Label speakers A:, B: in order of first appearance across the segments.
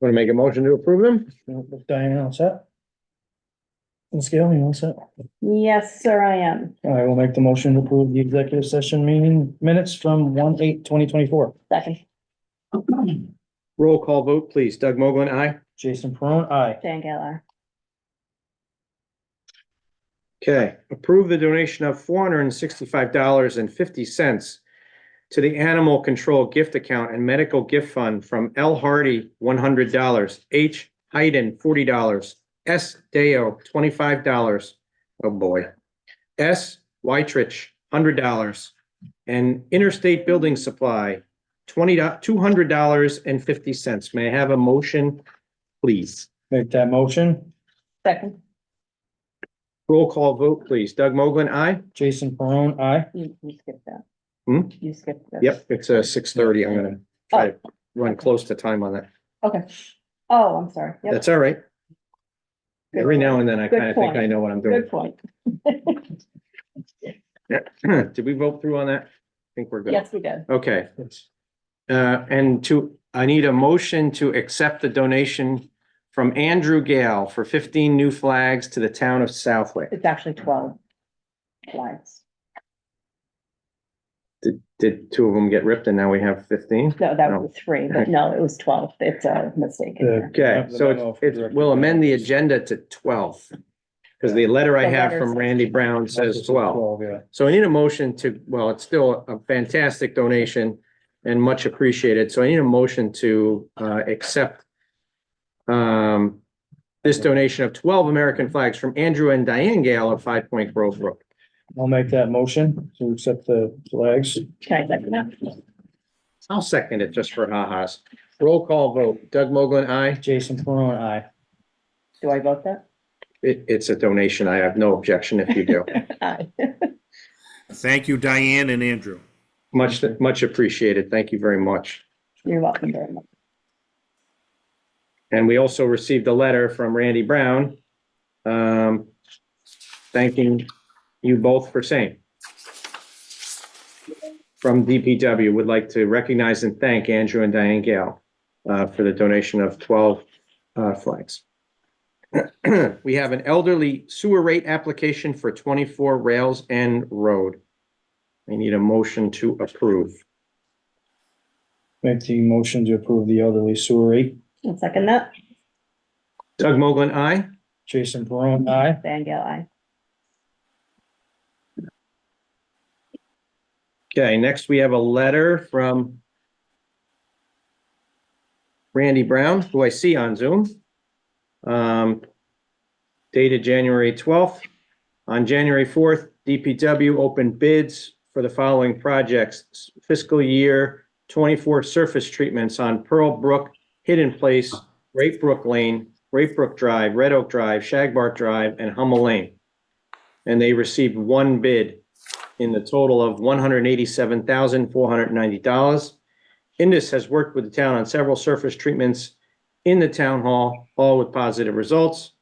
A: Want to make a motion to approve them?
B: Diana, all set? And Scale, you all set?
C: Yes, sir, I am.
B: I will make the motion to approve the executive session meeting minutes from one eight twenty twenty-four.
C: Second,
A: Roll call vote, please. Doug Mogul, aye.
B: Jason Peron, aye.
C: Jan Geller.
A: Okay, approve the donation of four hundred and sixty-five dollars and fifty cents to the Animal Control Gift Account and Medical Gift Fund from L Hardy, one hundred dollars, H Hayden, forty dollars, S Deo, twenty-five dollars, oh boy, S Whitrich, hundred dollars, and Interstate Building Supply, twenty, two hundred dollars and fifty cents. May I have a motion, please?
B: Make that motion.
C: Second,
A: Roll call vote, please. Doug Moglen, aye?
B: Jason Peron, aye.
C: you, you skipped that.
A: Hmm?
C: You skipped that.
A: Yep, it's uh six thirty. I'm gonna try
C: Oh.
A: to run close to time on that.
C: Okay. Oh, I'm sorry. Yep.
A: That's all right.
C: Good
A: Every now
C: point.
A: and then I
C: Good
A: kind of think
C: point.
A: I know what I'm doing.
C: Good point.
A: Did we vote through on that? I think we're good.
C: Yes, we did.
A: Okay. Uh, and to, I need a motion to accept the donation from Andrew Gale for fifteen new flags to the town of Southwick.
C: It's actually twelve lines.
A: Did, did two of them get ripped and now we have fifteen?
C: No, that was three, but no, it was twelve. It's a mistake. in there.
A: Okay, so it's- it's, we'll amend the agenda to twelve. Because the letter I
C: The
A: have
C: letter
A: from
C: says-
A: Randy Brown says twelve.
B: yeah.
A: So I need a motion to, well, it's still a fantastic donation and much appreciated. So I need a motion to uh accept um this donation of twelve American flags from Andrew and Diane Gale of Five Point Grove Road.
B: I'll make that motion to accept the flags.
C: Can I second that?
A: I'll second it just for ha-has. Roll call vote. Doug Moglen, aye.
B: Jason Peron, aye.
C: Do I vote that?
A: It it's a donation. I have no objection if you do.
C: Aye.
D: Thank you, Diane and Andrew.
A: Much, much appreciated. Thank you very much.
C: You're welcome very much.
A: And we also received a letter from Randy Brown um, thanking you both for same. From DPW, would like to recognize and thank Andrew and Diane Gale uh, for the donation of 12 uh, flags. We have an elderly sewer rate application for 24 Rails End Road. I need a motion to approve.
B: Make the motion to approve the elderly sewer rate.
C: I'll second that.
A: Doug Moglen, aye?
B: Jason Peron, aye.
C: Jan Geller, aye.
A: Okay, next we have a letter from Randy Brown, who I see on Zoom. um, Dated January 12th. On January 4th, DPW opened bids for the following projects. Fiscal year 24 surface treatments on Pearl Brook, Hidden Place, Great Brook Lane, Great Brook Drive, Red Oak Drive, Shagbark Drive, and Hummel Lane. And they received one bid in the total of one hundred eighty-seven thousand, four hundred ninety dollars. Indus has worked with the town on several surface treatments in the town hall, all with positive results.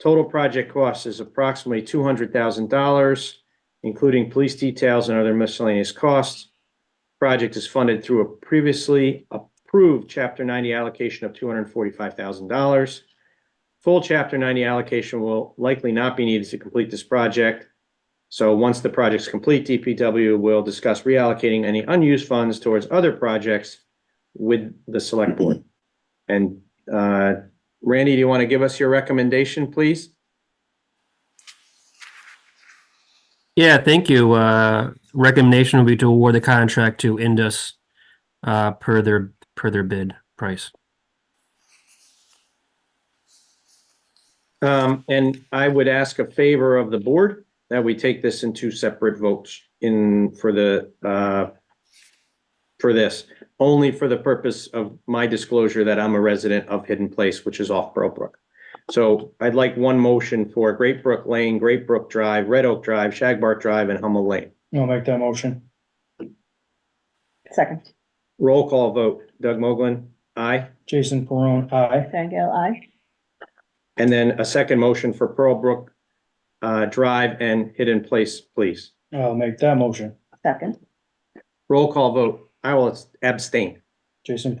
A: Total project cost is approximately two hundred thousand dollars, including police details and other miscellaneous costs. Project is funded through a previously approved chapter ninety allocation of two hundred forty-five thousand dollars. Full chapter ninety allocation will likely not be needed to complete this project. So once the project's complete, DPW will discuss reallocating any unused funds towards other projects with the select board. And uh, Randy, do you want to give us your recommendation, please?
E: Yeah, thank you. Uh, recommendation would be to award the contract to Indus uh, per their per their bid price.
A: Um, And I would ask a favor of the board that we take this in two separate votes in for the uh, for this, only for the purpose of my disclosure that I'm a resident of Hidden Place, which is off Pearl Brook. So I'd like one motion for Great Brook Lane, Great Brook Drive, Red Oak Drive, Shagbark Drive, and Hummel Lane.
B: I'll make that motion.
C: Second,
A: Roll call vote. Doug Moglen, aye.
B: Jason Peron, aye.
C: Jan Geller, aye.
A: And then a second motion for Pearl Brook uh, Drive and Hidden Place, please.
B: I'll make that motion.
C: Second.
A: Roll call vote. I will abstain.
B: Jason